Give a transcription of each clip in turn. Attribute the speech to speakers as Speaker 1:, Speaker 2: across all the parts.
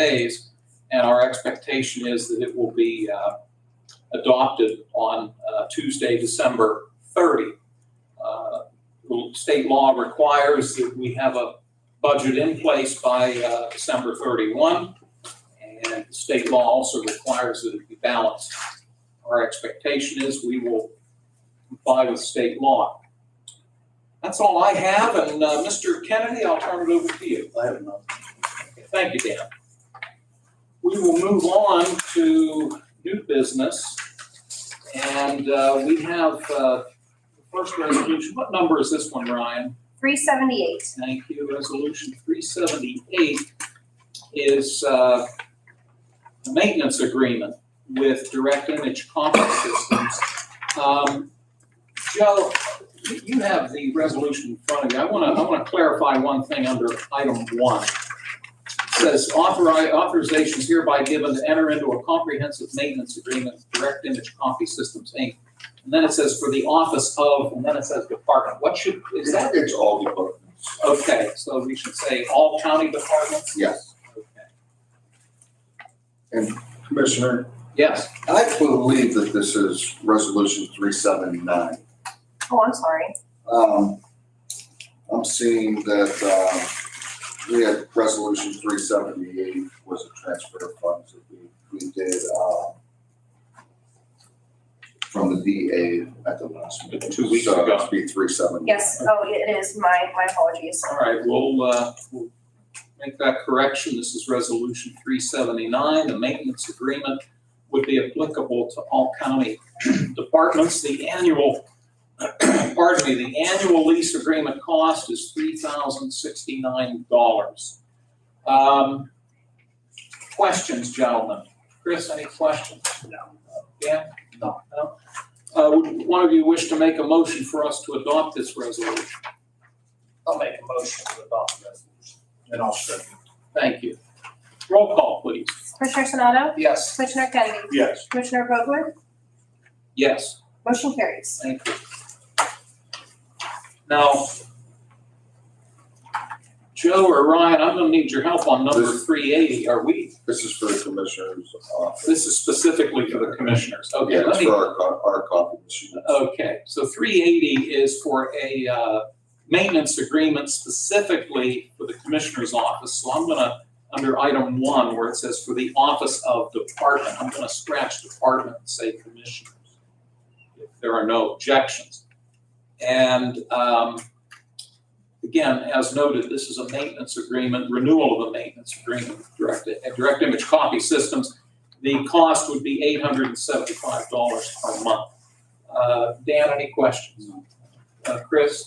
Speaker 1: days. And our expectation is that it will be uh, adopted on uh, Tuesday, December 30. Uh, State law requires that we have a budget in place by uh, December 31. And state law also requires that it be balanced. Our expectation is we will comply with state law. That's all I have, and uh, Mr. Kennedy, I'll turn it over to you.
Speaker 2: I have none.
Speaker 1: Thank you, Dan. We will move on to new business. And uh, we have uh, the first resolution. What number is this one, Ryan?
Speaker 3: 378.
Speaker 1: Thank you. Resolution 378 is uh, a maintenance agreement with Direct Image Conference Systems. Um, Joe, you- you have the resolution in front of you. I want to, I want to clarify one thing under item one. It Says authori- authorization is hereby given to enter into a comprehensive maintenance agreement with Direct Image Coffee Systems, Inc. And then it says for the office of, and then it says department. What should, is that
Speaker 2: It's all departments.
Speaker 1: Okay, so we should say all county departments?
Speaker 2: Yes.
Speaker 1: Okay.
Speaker 2: Commissioner,
Speaker 1: Yes,
Speaker 2: I believe that this is resolution three seventy-nine.
Speaker 3: Oh, I'm sorry.
Speaker 2: Um, I'm seeing that, uh, we had resolution three seventy-eight was a transfer of funds that we, we did, uh, from the DA at the last meeting.
Speaker 1: Two weeks
Speaker 2: So
Speaker 1: ago.
Speaker 2: it'd be three seventy.
Speaker 3: Yes, oh, it is. My, my apologies.
Speaker 1: all right, we'll, uh, we'll make that correction. This is resolution three seventy-nine. The maintenance agreement would be applicable to all county departments. The annual, pardon me, the annual lease agreement cost is three thousand sixty-nine dollars. Um, questions, gentlemen? Chris, any questions? Dan?
Speaker 2: No.
Speaker 1: No? Uh, would one of you wish to make a motion for us to adopt this resolution?
Speaker 4: I'll make a motion to adopt the resolution. And I'll second.
Speaker 1: Thank you. Roll call, please.
Speaker 3: Commissioner Sonato?
Speaker 4: Yes.
Speaker 3: Commissioner Kennedy?
Speaker 4: Yes.
Speaker 3: Commissioner Vogler?
Speaker 1: Yes,
Speaker 3: Motion carries.
Speaker 1: thank you. Now, Joe or Ryan, I'm gonna need your help on number
Speaker 2: This-
Speaker 1: three eighty. Are we,
Speaker 2: This is for the commissioner's office.
Speaker 1: this is specifically for the commissioners. Okay,
Speaker 2: Yeah,
Speaker 1: let
Speaker 2: it's
Speaker 1: me, Oh,
Speaker 2: for our, co- our copy machine.
Speaker 1: okay. So three eighty is for a, uh, maintenance agreement specifically for the commissioner's office. So I'm gonna, under item one, where it says for the office of department, I'm gonna scratch department and say commissioners. If there are no objections. And, um, again, as noted, this is a maintenance agreement, renewal of a maintenance agreement with direct, uh, direct image copy systems. The cost would be eight hundred and seventy-five dollars per month. Uh, Dan, any questions? Uh, Chris?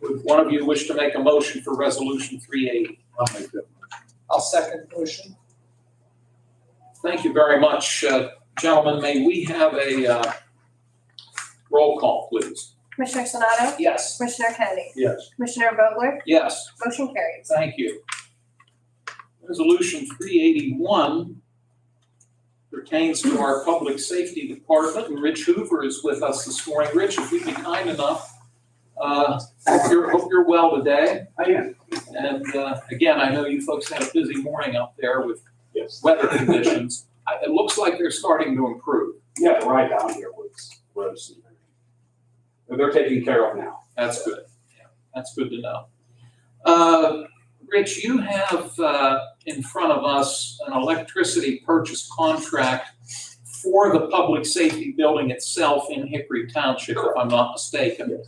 Speaker 1: Would one of you wish to make a motion for resolution three eighty?
Speaker 2: I'll make that.
Speaker 4: I'll second the motion.
Speaker 1: Thank you very much, uh, gentlemen. May we have a uh, roll call, please?
Speaker 3: Commissioner Sonato?
Speaker 1: Yes.
Speaker 3: Commissioner Kennedy?
Speaker 2: Yes.
Speaker 3: Commissioner Vogler?
Speaker 1: Yes.
Speaker 3: Motion carries.
Speaker 1: Thank you. Resolution three eighty-one pertains to our Public Safety Department, and Rich Hoover is with us this morning. Rich, if you'd be kind enough, uh, hope you're, hope you're well today. I am. And, uh, again, I know you folks had a busy morning out there with
Speaker 5: Yes,
Speaker 1: weather conditions. I- It looks like they're starting to improve.
Speaker 5: yeah, right down here was roads and everything. But They're taken care of now.
Speaker 1: That's good. Yeah, That's good to know. Uh, Rich, you have uh, in front of us an electricity purchase contract for the public safety building itself in Hickory Township, if I'm not mistaken.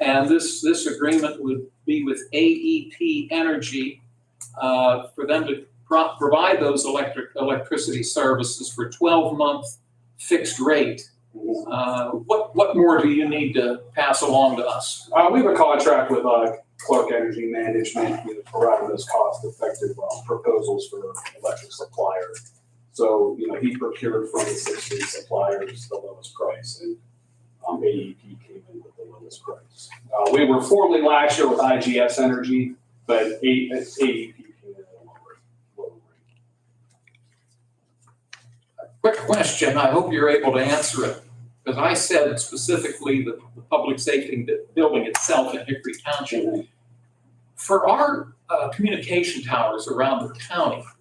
Speaker 1: And this, this agreement would be with AEP Energy uh, for them to pro- provide those electric, electricity services for 12-month fixed rate.
Speaker 4: Mm-hmm.
Speaker 1: Uh, What, what more do you need to pass along to us?
Speaker 5: Uh, we have a contract with, uh, Clark Energy Management, who provided us cost-effective, uh, proposals for electric supplier. So, you know, he procured from the six lead suppliers the lowest price, and, um, AEP came in with the lowest price. Uh, we were formerly last year with IGS Energy, but A- AEP came in at a lower, lower rate.
Speaker 1: Quick question, I hope you're able to answer it, because I said specifically the, the public safety bu- building itself in Hickory Township. For our, uh, communication towers around the county,